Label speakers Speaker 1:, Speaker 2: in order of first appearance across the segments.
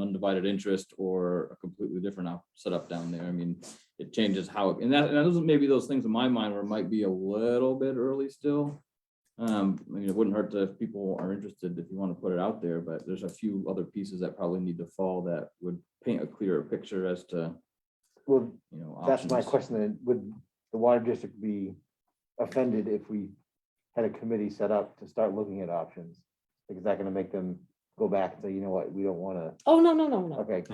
Speaker 1: undivided interest or a completely different op- setup down there. I mean, it changes how, and that, and those are maybe those things in my mind where it might be a little bit early still. Um, I mean, it wouldn't hurt to- if people are interested, if you want to put it out there, but there's a few other pieces that probably need to fall that would paint a clearer picture as to,
Speaker 2: Well,
Speaker 1: you know.
Speaker 2: that's my
Speaker 1: options.
Speaker 2: question, then, would the water district be offended if we had a committee set up to start looking at options? Like, is that gonna make them go back and say, you know what, we don't wanna,
Speaker 3: Oh, no, no, no, no.
Speaker 2: okay,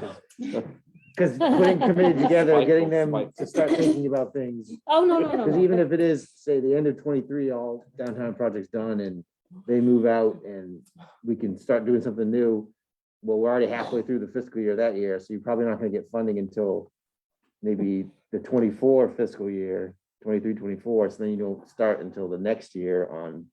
Speaker 2: because putting committee together, getting them to start thinking about things.
Speaker 3: Oh, no, no, no,
Speaker 2: Because
Speaker 3: no.
Speaker 2: even if it is, say, the end of twenty-three, all downtown projects done and they move out and we can start doing something new. Well, we're already halfway through the fiscal year that year, so you're probably not gonna get funding until maybe the twenty-four fiscal year, 23, 24. So then you don't start until the next year on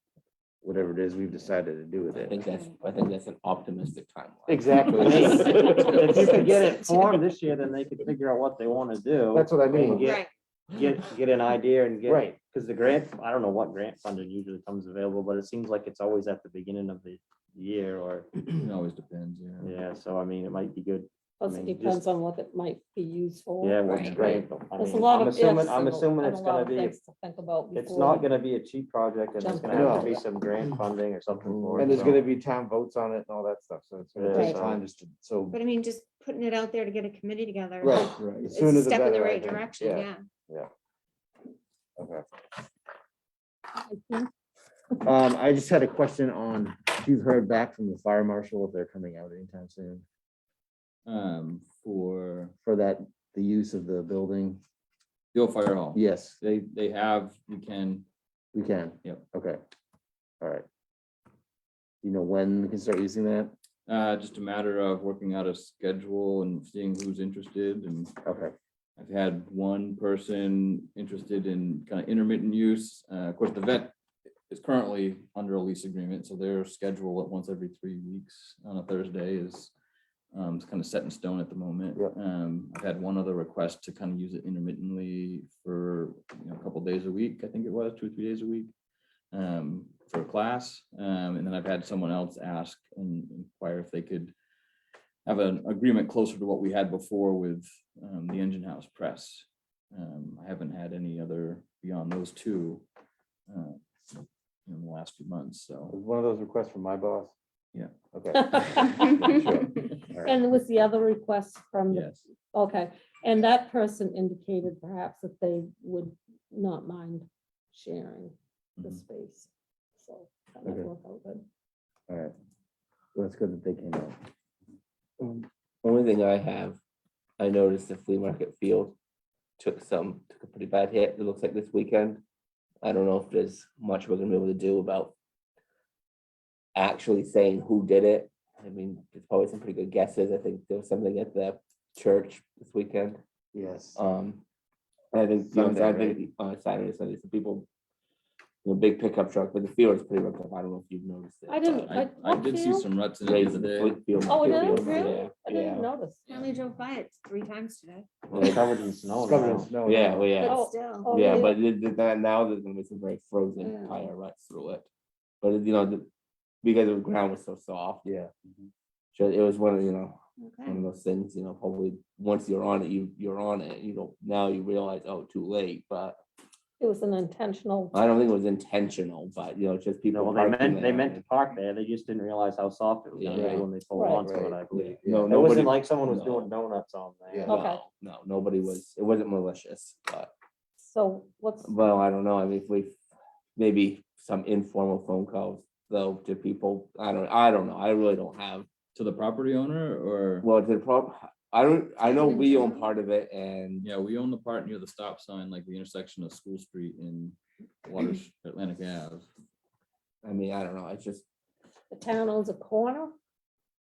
Speaker 2: whatever it is we've decided to do with
Speaker 4: I
Speaker 2: it.
Speaker 4: think that's, I think that's an optimistic timeline.
Speaker 5: Exactly. If you could get it
Speaker 6: Yes.
Speaker 5: formed this year, then they could figure out what they want to do.
Speaker 2: That's what I
Speaker 5: and
Speaker 2: mean.
Speaker 5: Get, get, get an idea and get.
Speaker 2: Right.
Speaker 5: Because the grant, I don't know what grant funding usually comes available, but it seems like it's always at the beginning of the year or,
Speaker 1: It always depends, yeah.
Speaker 5: yeah, so I mean, it might be good.
Speaker 3: Plus, it depends on what it might be used for.
Speaker 5: Yeah.
Speaker 6: Right.
Speaker 5: Right.
Speaker 3: There's a lot of. ifs
Speaker 5: I'm
Speaker 3: and a-
Speaker 5: assuming
Speaker 3: and
Speaker 5: it's
Speaker 3: a lot
Speaker 5: gonna
Speaker 3: of
Speaker 5: be,
Speaker 3: things to Think about.
Speaker 5: it's
Speaker 3: before
Speaker 5: not
Speaker 3: we-
Speaker 5: gonna be a cheap project and there's
Speaker 3: Jump
Speaker 5: gonna have to
Speaker 2: in.
Speaker 5: be some grant funding or something for it.
Speaker 2: And there's
Speaker 5: so-
Speaker 2: gonna be town votes on it and all that stuff, so it's gonna
Speaker 5: Yeah,
Speaker 2: take
Speaker 5: so-
Speaker 2: time just to, so.
Speaker 6: But I mean, just putting it out there to get a committee together.
Speaker 2: Right, right.
Speaker 6: It's
Speaker 2: It's
Speaker 6: a step in the right direction, yeah.
Speaker 2: Okay.
Speaker 3: I think
Speaker 2: Um, I just had a question on, if you've heard back from the fire marshal, if they're coming out anytime soon,
Speaker 1: Um, for
Speaker 2: for that, the use of the building?
Speaker 1: the old fire hall.
Speaker 2: Yes,
Speaker 1: They, they have, you can,
Speaker 2: we can.
Speaker 1: Yep.
Speaker 2: Okay. All right. You know when we can start using that?
Speaker 1: uh, just a matter of working out a schedule and seeing who's interested and
Speaker 2: Okay,
Speaker 1: I've had one person interested in kind of intermittent use. Uh, of course, the vet is currently under a lease agreement, so their schedule at once every three weeks on a Thursday is um, it's kind of set in stone at the moment.
Speaker 2: Yep.
Speaker 1: Um, I've had one other request to kind of use it intermittently for, you know, a couple days a week, I think it was, two or three days a week um, for class. Um, and then I've had someone else ask and inquire if they could have an agreement closer to what we had before with um, the Engine House Press. Um, I haven't had any other beyond those two uh, in the last few months, so.
Speaker 2: was one of those requests from my boss?
Speaker 1: Yeah.
Speaker 2: Okay. All right.
Speaker 3: And was the other request from, the
Speaker 1: Yes,
Speaker 3: okay, and that person indicated perhaps that they would not mind sharing
Speaker 1: Mhm.
Speaker 3: the
Speaker 5: Mm-hmm.
Speaker 3: space. So that might
Speaker 2: Okay.
Speaker 3: work out good.
Speaker 2: All right. Well, it's good that they came out.
Speaker 4: Only thing I have, I noticed the flea market field took some, took a pretty bad hit, it looks like this weekend. I don't know if there's much we're gonna be able to do about actually saying who did it. I mean, there's probably some pretty good guesses. I think there was something at the church this weekend.
Speaker 2: Yes.
Speaker 4: Um, I think, you know,
Speaker 2: Sunday,
Speaker 4: I think on Saturday, Sunday, some people, the big pickup truck, but the field is pretty roughed up. I don't know if you've noticed it.
Speaker 3: I didn't-
Speaker 1: I,
Speaker 3: But
Speaker 1: I did see
Speaker 3: upfield?
Speaker 1: some ruts in it
Speaker 4: Raising the
Speaker 1: today.
Speaker 4: fleet field.
Speaker 3: Oh, it
Speaker 4: field
Speaker 3: is?
Speaker 4: field,
Speaker 3: Really? I
Speaker 4: Yeah,
Speaker 3: didn't notice.
Speaker 6: I only drove by it three times today,
Speaker 5: Well, it's Covered in snow.
Speaker 2: It's covered in
Speaker 5: now.
Speaker 2: snow.
Speaker 4: yeah, well, yeah.
Speaker 3: Oh,
Speaker 6: but still.
Speaker 3: Oh,
Speaker 4: Yeah,
Speaker 3: really?
Speaker 4: but it- it- that- now there's gonna be some very
Speaker 3: Yeah.
Speaker 4: frozen tire ruts through it. But it- you know, the- because the ground was so soft,
Speaker 2: Yeah.
Speaker 3: Mm-hmm.
Speaker 4: so it was one of, you know, one
Speaker 6: Okay.
Speaker 4: of those things, you know, probably once you're on it, you, you're on it, you don't, now you realize, oh, too late, but
Speaker 3: It was an intentional,
Speaker 4: I don't think it was intentional, but you know, just
Speaker 5: No,
Speaker 4: people.
Speaker 5: well, they
Speaker 4: parking
Speaker 5: meant, they
Speaker 4: there.
Speaker 5: meant to park there, they just didn't realize how soft it was gonna
Speaker 4: Yeah.
Speaker 5: be when they pulled
Speaker 3: Right.
Speaker 5: onto it, I
Speaker 2: Right.
Speaker 5: believe.
Speaker 4: No,
Speaker 5: It
Speaker 4: nobody,
Speaker 5: wasn't like someone was
Speaker 4: No.
Speaker 5: doing donuts on there.
Speaker 2: Yeah.
Speaker 3: Okay.
Speaker 4: no, no, nobody was, it wasn't malicious, but,
Speaker 3: so what's,
Speaker 4: well, I don't know, I mean, if we, maybe some informal phone calls though to people, I don't, I don't know, I really don't have
Speaker 1: To the property owner or,
Speaker 4: Well, the problem, I don't, I know
Speaker 6: Even
Speaker 4: we
Speaker 6: town?
Speaker 4: own part of it and,
Speaker 1: yeah, we own the part near the stop sign, like the intersection of School Street and
Speaker 2: Mm-hmm.
Speaker 1: Waters, Atlantic Ave.
Speaker 4: I mean, I don't know, it's just.
Speaker 3: the town owns a corner?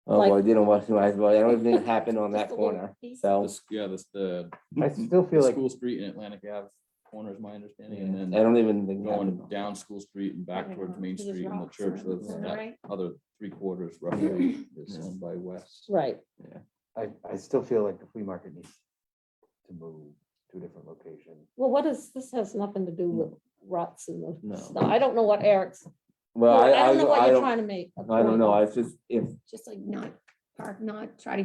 Speaker 4: Oh,
Speaker 3: Like-
Speaker 4: well, I didn't watch the eyes, but I don't think it happened on that
Speaker 3: Just a little
Speaker 4: corner,
Speaker 3: piece.
Speaker 1: The
Speaker 4: so.
Speaker 1: s- Yeah, that's the,
Speaker 2: Oh. I still
Speaker 1: the
Speaker 2: feel like,
Speaker 1: School Street and Atlantic Ave corner is my understanding,
Speaker 4: yeah,
Speaker 1: and
Speaker 4: I
Speaker 1: then
Speaker 4: don't even think. it
Speaker 1: going
Speaker 4: happened on-
Speaker 1: down School Street and back
Speaker 3: don't
Speaker 1: towards
Speaker 3: know.
Speaker 1: Main
Speaker 3: It just
Speaker 1: Street and the
Speaker 3: rocks
Speaker 1: church,
Speaker 3: around
Speaker 1: that's
Speaker 3: there,
Speaker 1: that
Speaker 6: right?
Speaker 1: other three quarters roughly is owned by West.
Speaker 3: Right,
Speaker 2: I, I still feel like the flea market needs to move to a different location.
Speaker 3: well, what is, this has nothing to do with ruts and the
Speaker 4: Hmm. No.
Speaker 3: snow, I don't know what Eric's,
Speaker 4: Well, I,
Speaker 3: I
Speaker 4: I,
Speaker 3: don't know what
Speaker 4: I
Speaker 3: you're
Speaker 4: don't,
Speaker 3: trying to make. a
Speaker 4: I
Speaker 3: point
Speaker 4: don't know,
Speaker 3: of.
Speaker 4: I just, if
Speaker 6: Just like not park, not try to